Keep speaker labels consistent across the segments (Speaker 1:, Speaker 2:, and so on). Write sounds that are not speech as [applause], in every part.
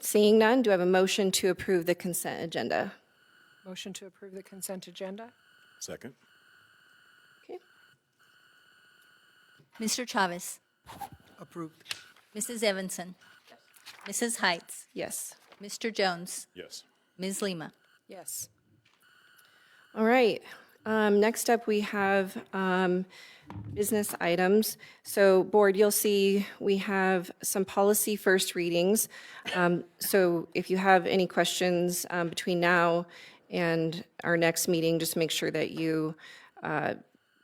Speaker 1: Seeing none, do I have a motion to approve the consent agenda?
Speaker 2: Motion to approve the consent agenda?
Speaker 3: Second.
Speaker 1: Okay.
Speaker 4: Mr. Chavez.
Speaker 5: Approved.
Speaker 4: Mrs. Evanson. Mrs. Heights.
Speaker 1: Yes.
Speaker 4: Mr. Jones.
Speaker 3: Yes.
Speaker 4: Ms. Lima.
Speaker 2: Yes.
Speaker 1: All right. Um, Next up, we have um, business items. So Board, you'll see we have some policy first readings. Um, So if you have any questions um, between now and our next meeting, just make sure that you uh,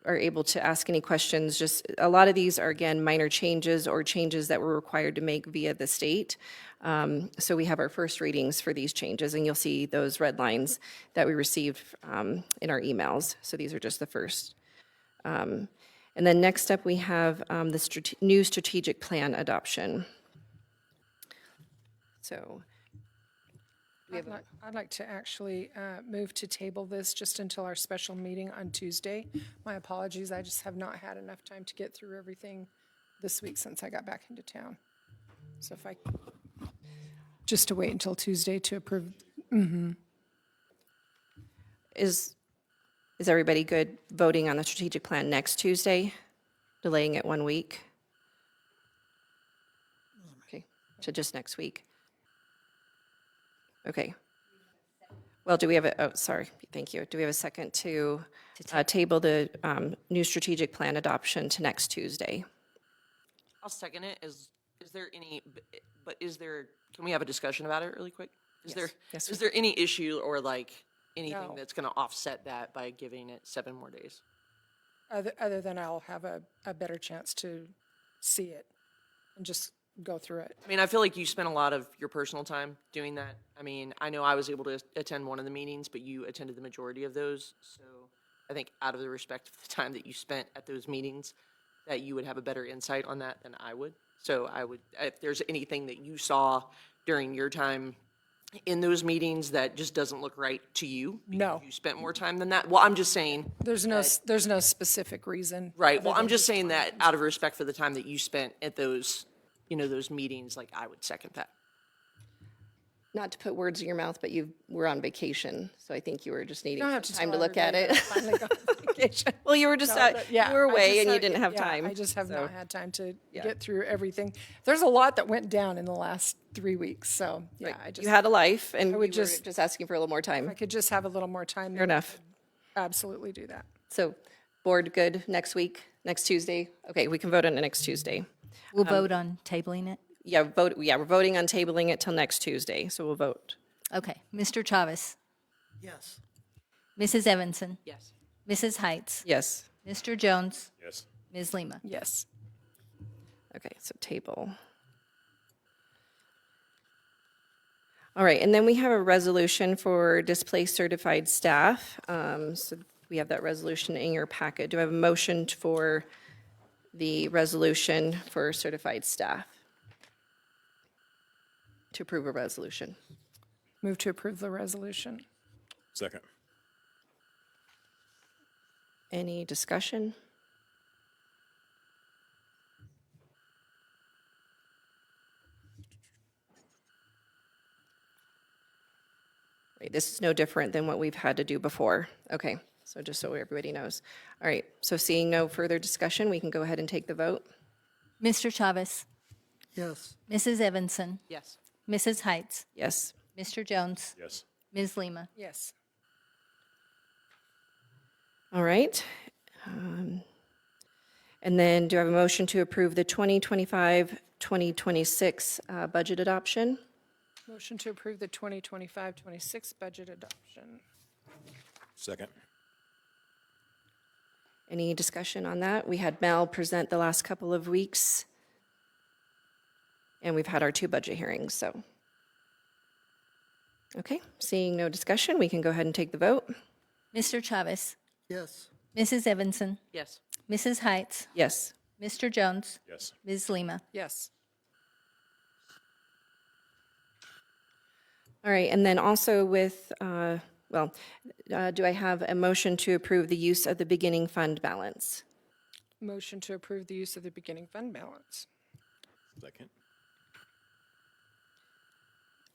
Speaker 1: are able to ask any questions. Just, a lot of these are, again, minor changes or changes that we're required to make via the state. Um, So we have our first readings for these changes, and you'll see those red lines that we received um, in our emails. So these are just the first. Um, And then next up, we have um, the strate- new strategic plan adoption. So,
Speaker 2: I'd like- I'd like to actually uh, move to table this just until our special meeting on Tuesday. My apologies, I just have not had enough time to get through everything this week since I got back into town. So if I, just to wait until Tuesday to approve,
Speaker 1: is, is everybody good voting on the strategic plan next Tuesday, delaying it one week? Okay, so just next week. Okay. Well, do we have a, oh, sorry, thank you. Do we have a second to uh, table the um, new strategic plan adoption to next Tuesday?
Speaker 6: I'll second it. Is, is there any, b- but is there, can we have a discussion about it really quick? Is there,
Speaker 1: Yes,
Speaker 6: is there any issue or like
Speaker 2: No.
Speaker 6: anything that's going to offset that by giving it seven more days?
Speaker 2: other other than I'll have a, a better chance to see it and just go through it.
Speaker 6: I mean, I feel like you spent a lot of your personal time doing that. I mean, I know I was able to attend one of the meetings, but you attended the majority of those. So I think out of the respect of the time that you spent at those meetings, that you would have a better insight on that than I would. So I would, if there's anything that you saw during your time in those meetings that just doesn't look right to you, because
Speaker 2: No.
Speaker 6: you spent more time than that. Well, I'm just saying,
Speaker 2: There's no, s- there's no specific reason.
Speaker 6: right. Well, I'm just saying that out of respect for the time that you spent at those, you know, those meetings, like I would second that.
Speaker 1: Not to put words in your mouth, but you were on vacation, so I think you were just needing
Speaker 2: don't
Speaker 1: some
Speaker 2: have to
Speaker 1: time to
Speaker 2: tell
Speaker 1: look at it.
Speaker 2: [laughs] Finally go on
Speaker 1: [laughs]
Speaker 2: vacation.
Speaker 1: Well, you were just,
Speaker 2: No,
Speaker 1: uh,
Speaker 2: but
Speaker 1: you
Speaker 2: yeah,
Speaker 1: were
Speaker 2: I just
Speaker 1: away and you
Speaker 2: have-
Speaker 1: didn't have
Speaker 2: yeah,
Speaker 1: time.
Speaker 2: I just have
Speaker 1: so-
Speaker 2: not had time to get through everything. There's a lot that went down in the last three weeks, so yeah, I just
Speaker 1: You had a life and we were
Speaker 2: would
Speaker 1: just
Speaker 2: just-
Speaker 1: asking for a little more time.
Speaker 2: I could just have a little more time.
Speaker 1: Fair enough.
Speaker 2: Absolutely do that.
Speaker 1: So, board, good, next week, next Tuesday? Okay, we can vote on it next Tuesday.
Speaker 4: We'll vote on tabling it.
Speaker 1: Yeah, vote, yeah, we're voting on tabling it till next Tuesday, so we'll vote.
Speaker 4: Okay. Mr. Chavez.
Speaker 5: Yes.
Speaker 4: Mrs. Evanson.
Speaker 6: Yes.
Speaker 4: Mrs. Heights.
Speaker 1: Yes,
Speaker 4: Mr. Jones.
Speaker 3: Yes.
Speaker 4: Ms. Lima.
Speaker 2: Yes.
Speaker 1: okay, so table. All right, and then we have a resolution for displaced certified staff. Um, So we have that resolution in your packet. Do I have a motion for the resolution for certified staff? To approve a resolution.
Speaker 2: Move to approve the resolution.
Speaker 3: Second.
Speaker 1: Any discussion? Right, This is no different than what we've had to do before. Okay, so just so everybody knows. All right, so seeing no further discussion, we can go ahead and take the vote.
Speaker 4: Mr. Chavez.
Speaker 5: Yes.
Speaker 4: Mrs. Evanson.
Speaker 6: Yes.
Speaker 4: Mrs. Heights.
Speaker 1: Yes.
Speaker 4: Mr. Jones.
Speaker 3: Yes.
Speaker 4: Ms. Lima.
Speaker 2: Yes.
Speaker 1: All right. Um, And then do I have a motion to approve the 2025-2026 uh, budget adoption?
Speaker 2: Motion to approve the 2025-26 budget adoption.
Speaker 3: Second.
Speaker 1: Any discussion on that? We had Mel present the last couple of weeks, and we've had our two budget hearings, so. Okay, seeing no discussion, we can go ahead and take the vote.
Speaker 4: Mr. Chavez.
Speaker 5: Yes.
Speaker 4: Mrs. Evanson.
Speaker 6: Yes.
Speaker 4: Mrs. Heights.
Speaker 1: Yes.
Speaker 4: Mr. Jones.
Speaker 3: Yes.
Speaker 4: Ms. Lima.
Speaker 2: Yes.
Speaker 1: All right, and then also with, uh, well, uh, do I have a motion to approve the use of the beginning fund balance?
Speaker 2: Motion to approve the use of the beginning fund balance.
Speaker 3: Second.